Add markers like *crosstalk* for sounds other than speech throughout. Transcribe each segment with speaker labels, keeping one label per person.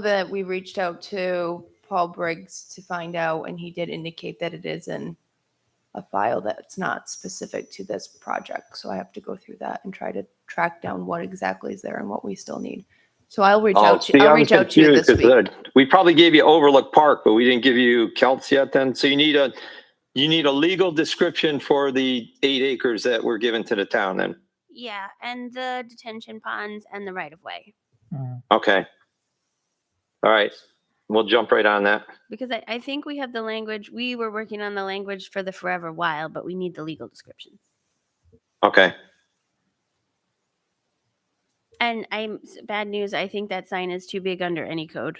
Speaker 1: that we reached out to Paul Briggs to find out, and he did indicate that it is in a file that's not specific to this project. So I have to go through that and try to track down what exactly is there and what we still need. So I'll reach
Speaker 2: Oh,
Speaker 1: out to,
Speaker 2: see,
Speaker 1: I'll
Speaker 2: I'm
Speaker 1: reach out to you
Speaker 2: confused
Speaker 1: this
Speaker 2: 'cause, uh,
Speaker 1: week.
Speaker 2: We probably gave you Overlook Park, but we didn't give you Kelts yet then. So you need a, you need a legal description for the eight acres that were given to the town then.
Speaker 3: Yeah, and the detention ponds and the right of way.
Speaker 2: Okay. All right. We'll jump right on that.
Speaker 3: Because I, I think we have the language, we were working on the language for the forever wild, but we need the legal description.
Speaker 2: Okay. *laughs*
Speaker 3: And I'm, s- bad news, I think that sign is too big under any code.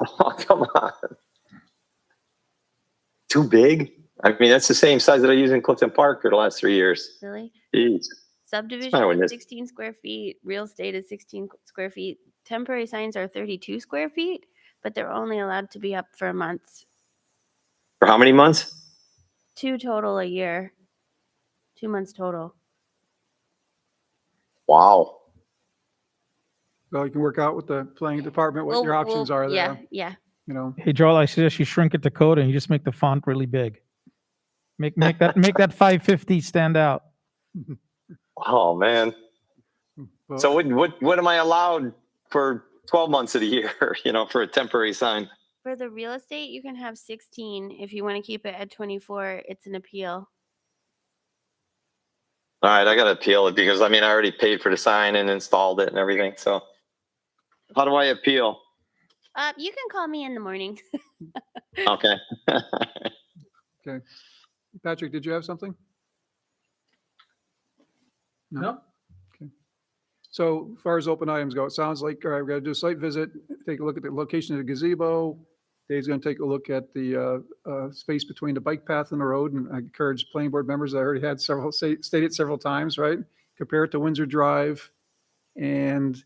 Speaker 2: Oh, come on. Too big? I mean, that's the same size that I used in Clifton Park for the last three years.
Speaker 3: Really?
Speaker 2: Jeez.
Speaker 3: Subdivision
Speaker 2: with
Speaker 3: is
Speaker 2: this?
Speaker 3: sixteen square feet, real estate is sixteen qu- square feet, temporary signs are thirty-two square feet, but they're only allowed to be up for a month,
Speaker 2: For how many months?
Speaker 3: two total a year. Two months total.
Speaker 2: Wow.
Speaker 4: Well, you can work out with the planning department what
Speaker 3: We'll-
Speaker 4: your options
Speaker 3: we'll-
Speaker 4: are
Speaker 3: Yeah,
Speaker 4: there,
Speaker 3: yeah.
Speaker 4: you know.
Speaker 5: Hey, Joel, I suggest you shrink it to code and you just make the font really big. Make, make that, make that *laughs* 550 stand out.
Speaker 2: Oh, man.
Speaker 4: but-
Speaker 2: So what, what, what am I allowed for 12 months of the year, *laughs* you know, for a temporary sign?
Speaker 3: For the real estate, you can have sixteen. If you want to keep it at twenty-four, it's an appeal.
Speaker 2: All right, I got to appeal it because I mean, I already paid for the sign and installed it and everything. So how do I appeal?
Speaker 3: Uh, you can call me in the morning.
Speaker 2: Okay. *laughs*
Speaker 4: Patrick, did you have something? No. Okay. So as far as open items go, it sounds like, all right, we're gonna do a site visit, take a look at the location of the gazebo. Dave's gonna take a look at the uh, uh, space between the bike path and the road, and I encourage planning board members, I already had several, say- stated several times, right? Compare it to Windsor Drive, and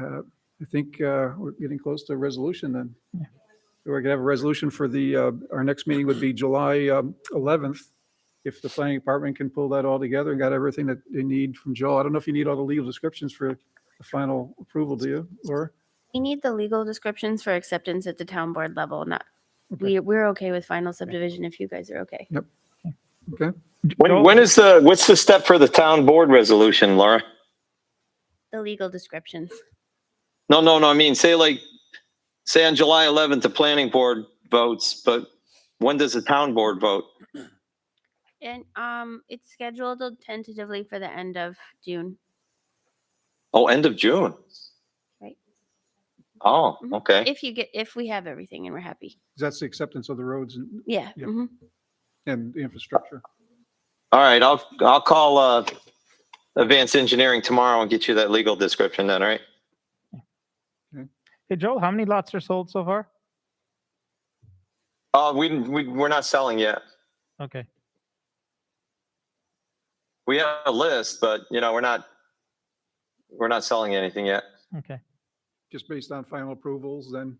Speaker 4: uh, I think uh, we're getting close to a resolution then. We're gonna have a resolution for the, uh, our next meeting would be July um, 11th. If the planning department can pull that all together and got everything that they need from Joel. I don't know if you need all the legal descriptions for the final approval, do you, Laura?
Speaker 3: We need the legal descriptions for acceptance at the town board level, not,
Speaker 4: Okay.
Speaker 3: we, we're okay with final subdivision if you guys are okay.
Speaker 4: Okay,
Speaker 2: When, when is the, what's the step for the town board resolution, Laura?
Speaker 3: The legal descriptions.
Speaker 2: No, no, no. I mean, say like, say on July 11th, the planning board votes, but when does the town board vote?
Speaker 3: And, um, it's scheduled tentatively for the end of June,
Speaker 2: Oh, end of June.
Speaker 3: right?
Speaker 2: Oh,
Speaker 3: Mhm.
Speaker 2: okay.
Speaker 3: If you get, if we have everything and we're happy.
Speaker 4: 'Cause that's the acceptance of the roads and,
Speaker 3: Yeah.
Speaker 4: Yep.
Speaker 3: mhm.
Speaker 4: and the infrastructure.
Speaker 2: All right. I'll, I'll call, uh, advanced engineering tomorrow and get you that legal description then, all right?
Speaker 5: Hey, Joel, how many lots are sold so far?
Speaker 2: Oh, we, didn't- we, we're not selling yet.
Speaker 5: Okay.
Speaker 2: We have a list, but you know, we're not, we're not selling anything yet.
Speaker 5: Okay.
Speaker 4: Just based on final approvals, then.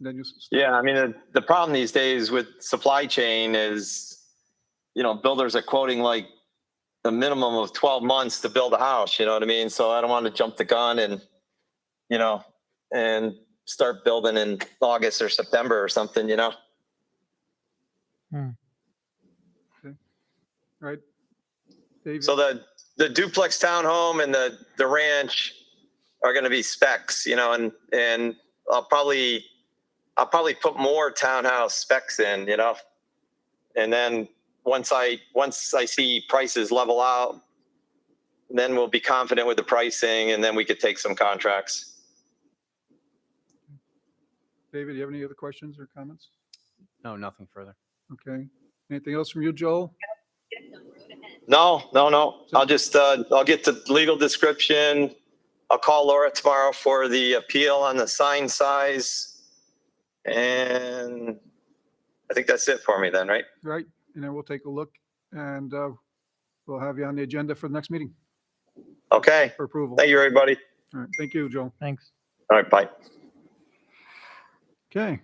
Speaker 4: Then you. s-
Speaker 2: Yeah, I mean, the, the problem these days with supply chain is, you know, builders are quoting like a minimum of 12 months to build a house, you know what I mean? So I don't want to jump the gun and, you know, and start building in August or September or something, you know?
Speaker 4: Right? Dave,
Speaker 2: So the, the duplex townhome and the, the ranch are gonna be specs, you know, and, and I'll probably, I'll probably put more townhouse specs in, you know? And then, once I, once I see prices level out, then we'll be confident with the pricing and then we could take some contracts.
Speaker 4: David, do you have any other questions or comments?
Speaker 6: No, nothing further.
Speaker 4: Okay. Anything else from you, Joel?
Speaker 2: No, no, no. I'll just, uh, I'll get the legal description. I'll call Laura tomorrow for the appeal on the sign size. And I think that's it for me then, right?
Speaker 4: Right? And then we'll take a look and uh, we'll have you on the agenda for the next meeting
Speaker 2: Okay.
Speaker 4: for approval.
Speaker 2: Thank you, everybody.
Speaker 4: All right, thank you, Joel.
Speaker 5: Thanks.
Speaker 2: All right, bye.
Speaker 4: Okay.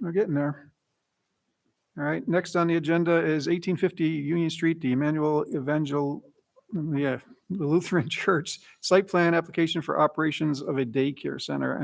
Speaker 4: We're getting there. All right, next on the agenda is eighteen fifty Union Street, the Emmanuel Evangel *laughs* yeah, the Lutheran Church, site plan application for operations of a daycare center